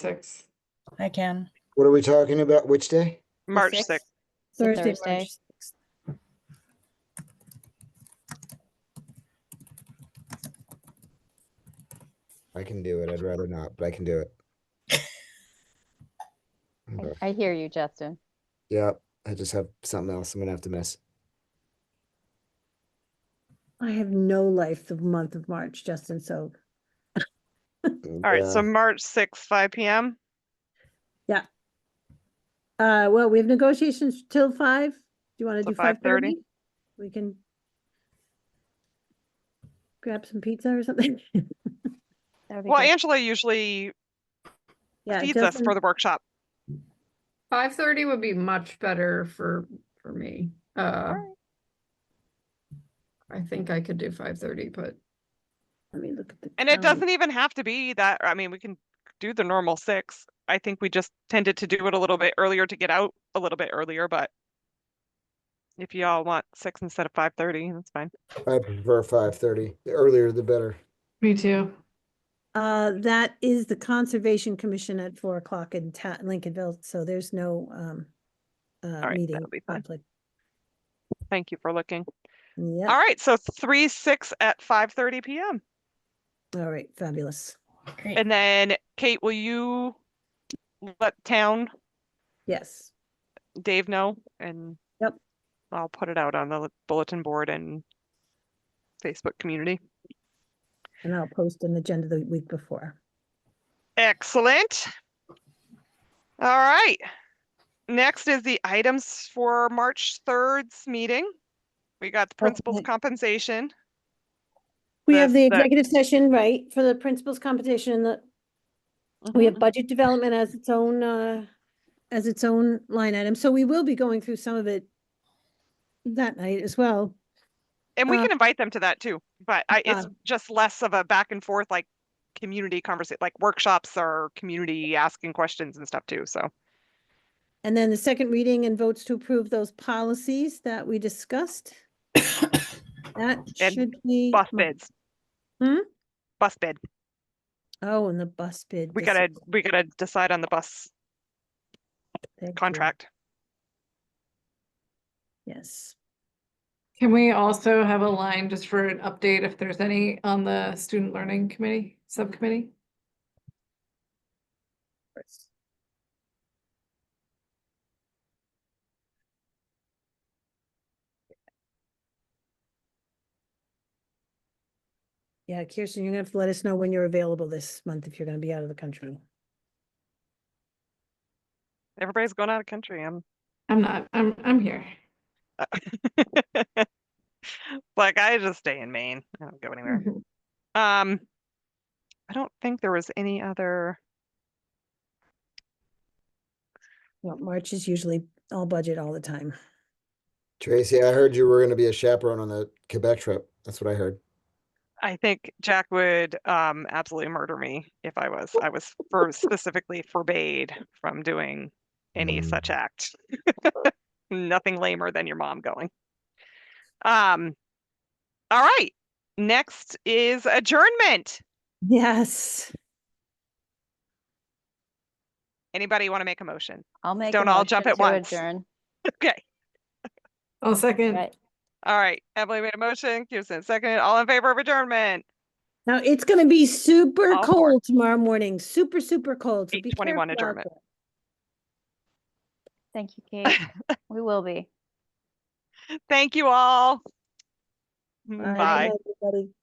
sixth, I can. What are we talking about? Which day? March sixth? sixth. It's a Thursday, Thursday. March I can do it. I'd rather not, but I can do it. I- Okay. I hear you, Justin. Yeah, I just have something else I'm gonna have to miss. I have no life the month of March, Justin, so, All right, so March sixth, five PM. uh, well, we have negotiations till five. Do you want Till to do 5:30? five-thirty? We can grab some pizza or something. That would be Well, good. Angela usually Yeah, feeds us for Justin- the workshop. Five thirty would be much better for, for me. Uh. I think I could do five thirty, but Let me look at the. And it calendar. doesn't even have to be that, I mean, we can do the normal six. I think we just tended to do it a little bit earlier to get out a little bit earlier, but if you all want six instead of five thirty, that's fine. I prefer five thirty. The earlier the better. Me too. Uh, that is the Conservation Commission at four o'clock in Ta- Lincolnville, so there's no, um, uh, right, meeting that'll be fine. conflict. Thank you for looking. Yeah, All right, so three, six at five thirty PM. all right, fabulous. Great. And then Kate, will you let town Yes, Dave know and Yep. I'll put it out on the bulletin board and Facebook community. and I'll post an agenda the week before. Excellent. All right. Next is the items for March 3rd's meeting. We got the principal's Okay. compensation. We have That's the the- executive session, right, for the principals competition and the, we Mm-hmm. have budget development as its own, uh, as its own line item, so we will be going through some of it that night as well. And we uh, can invite them to that too, but I, Uh-huh. it's just less of a back and forth, like community conversation, like workshops or community asking questions and stuff too. So, And then the second reading and votes to approve those policies that we discussed. That And should be. bus bids. Hmm? Bus bid. Oh, and the bus bid. We this gotta, is- we gotta decide on the bus thank you. contract. Yes. Can we also have a line just for an update if there's any on the student learning committee, subcommittee? Yeah, Kirsten, you're gonna have to let us know when you're available this month if you're gonna be out of the country. Everybody's going out of country. I'm I'm not, I'm, I'm here. like I just stay in Maine. I don't go anywhere. Mhm. Um, I don't think there was any other. Well, March is usually all budget all the time. Tracy, I heard you were gonna be a chaperone on the Quebec trip. That's what I heard. I think Jack would um absolutely murder me if I was. I was for specifically forbade from doing any such act. Nothing lamer than your mom going. Um, all right. Next is adjournment. Yes. Anybody want to make a motion? I'll make. a Don't all jump motion at to once. adjourn. Okay. I'll second. Right. All right. Emily made a motion. Kirsten seconded. All in favor of adjournment. Now, it's gonna be super All for it. cold tomorrow morning, super, super cold. So be 8:21 careful out adjournment. there. Thank you, Kate. We will be. Thank you all. All right, Bye. everybody.